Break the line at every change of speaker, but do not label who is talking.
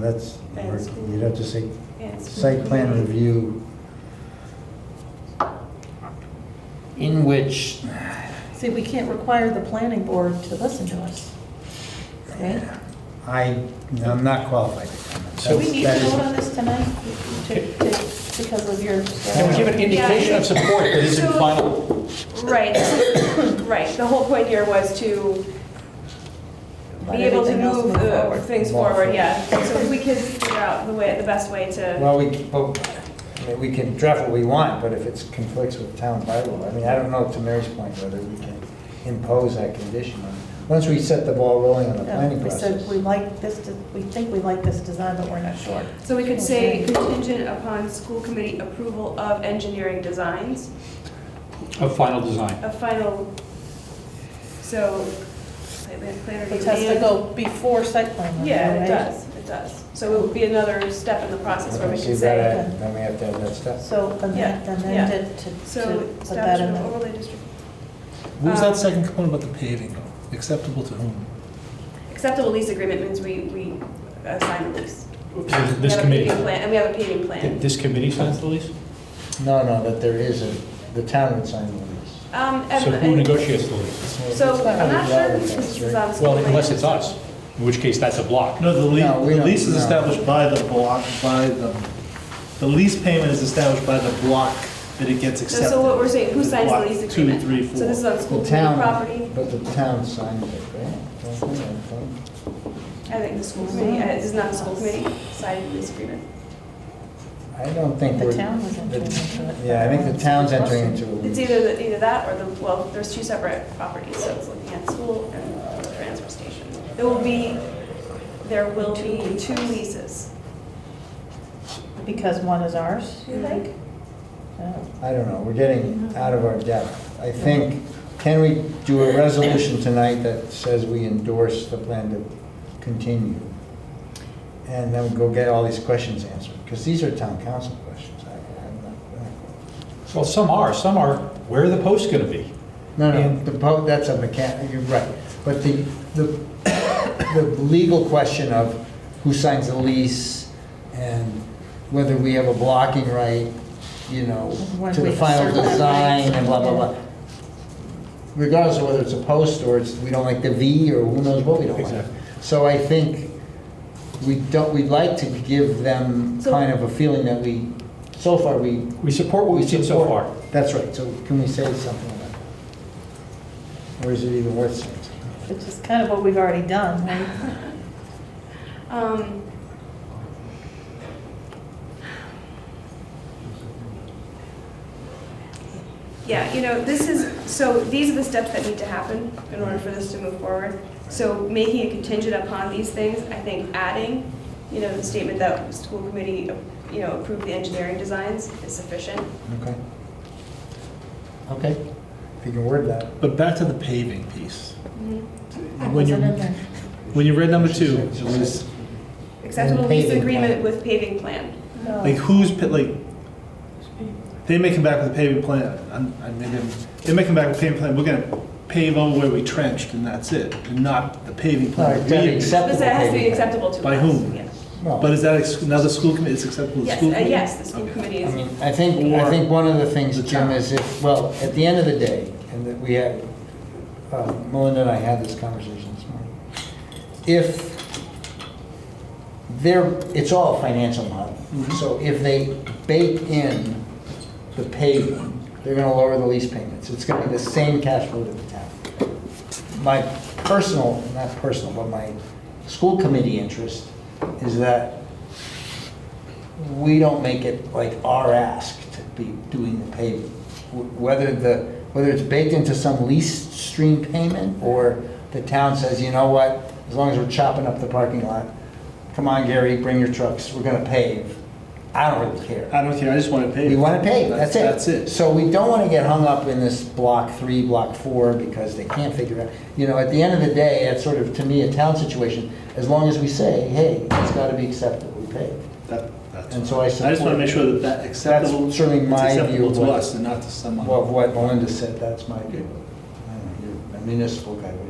That's,
That's-
you'd have to say,
Yes.
site plan review in which,
See, we can't require the planning board to listen to us, right?
I, I'm not qualified to comment.
So-
Do we
That's-
need to
that is-
vote on this tonight to- to- because of your...
Can we give an indication of support that isn't
So-
final?
Right, right. The whole point here was to
Let
be able to
everything else
move
move
uh,
forward.
things
Move
forward,
forward.
yeah. So if we could figure out the way, the best way to,
Well, we, can- but, I mean, we can draft what we want, but if it conflicts with town bylaw, I mean, I don't know, to Mary's point, whether we can impose that condition. on Once we set the ball rolling on the
No,
planning
We
process.
said we like this, de- we think we like this design, but we're not sure.
so we could say contingent upon school committee approval of engineering designs,
Of final design.
a final, so, site plan planner.
It has to
and-
go before site plan review,
Yeah, it
right?
does, it does. So it would be another step in the process where we
Okay,
can
so that-
say,
say-
Then we have to have that stuff.
So
Yeah,
amend
yeah.
amend it to
so
to put that
establishment
in the...
overlay district
What was
Um,
that second component about the paving? Acceptable to whom?
Acceptable lease agreement means we, we assign the lease. We
This
have a
committee,
paving plan- And we have a paving plan.
this committee signs the lease?
No, no, that there is a, the town would sign the lease.
Um, and-
So who negotiates the lease?
So
It's not
I'm not
really
sure
relevant,
if this
right?
is on. school
Well, unless
land,
it's
so-
us, in which case that's a block.
No, the
No, we
lease, the
don't-
lease is
no.
established by the block, by the, the lease payment is established by the block that it gets
So so what
accepted.
we're saying, who signs the
Block
lease
two,
agreement?
three,
So this is
four.
on school
The
committee
town,
property?
but the town signed it, right? Don't they? I think.
I think the school committee, uh, is not the school committee signing the lease agreement.
I don't think
The
we're.
town was entering into it.
Yeah, I think the town's entering into a lease.
It's either, the- either that or the, well, there's two separate properties, so it's looking at school and the transfer station. There will be, there will be two leases.
Because one is ours, you
Mhm.
think? No.
I don't know, we're getting out of our depth. I think, can we do a resolution tonight that says we endorse the plan to continue? And then go get all these questions answered, because these are town council questions. I- I'm not-
Well, some are, some are, where are the posts going to be?
No, no, the, po- that's a mechanic, you're right. But the, the, the legal question of who signs the lease and whether we have a blocking right, you know,
When
to
we
the final
assert that
design
right.
and blah, blah, blah. Regardless of whether it's a post or it's, we don't like the V or who knows what we don't like.
Exactly.
So I think we don't, we'd like to give them
So-
kind of a feeling that we, so far, we.
We support what we've seen so
support-
far.
That's right, so can we say something about that? Or is it even worth saying? something?
Which is kind of what we've already done, right?
Um, Yeah, you know, this is, so these are the steps that need to happen in order for this to move forward. So making a contingent upon these things, I think adding, you know, the statement that school committee, you know, approved the engineering designs is sufficient.
Okay. Okay, if you can word that.
But back to the paving piece.
Mm-hmm.
That
When you,
wasn't in there.
when you read number two, it was,
Acceptable lease
paving
agreement
plan.
with paving plan.
No.
like, who's, pa- like, they may come back with a paving plan, I'm, I mean, they may come back with a paving plan, we're gonna pave over where we trenched and that's it, and not the paving plan.
Alright, that'd be
We-
accept-
This has to be
Acceptable paving plan.
acceptable to us.
By whom?
yeah.
Well,
But is that ex- another school committee, it's acceptable to the
Yes,
school
uh,
committee?
yes, the school
Okay.
committee
I
is.
mean, I think, I think one of the things,
The
Jim,
town.
is if, well, at the end of the day, and that we had, uh, Melinda and I had this conversation this morning. If they're, it's all financial model. So if they bake in the paving, they're gonna lower the lease payments. It's gonna be the same cash flow to the town. My personal, not personal, but my school committee interest is that we don't make it like our ask to be doing the paving. Wh- Whether the, whether it's baked into some lease stream payment or the town says, you know what, as long as we're chopping up the parking lot, come on Gary, bring your trucks, we're gonna pave. I don't really care.
I don't care, I just want to pay.
We want to pay, that's it.
That's it.
So we don't want to get hung up in this block three, block four, because they can't figure out, you know, at the end of the day, it's sort of, to me, a town situation, as long as we say, hey, it's got to be acceptably paved.
That- that's
And
fine.
so I
I just want
support-
to make sure that that acceptable.
That's certainly
it's
my view
acceptable
of
to
what-
us and not to someone.
Well, of what Melinda said, that's my view. I don't know, You're a municipal guy, what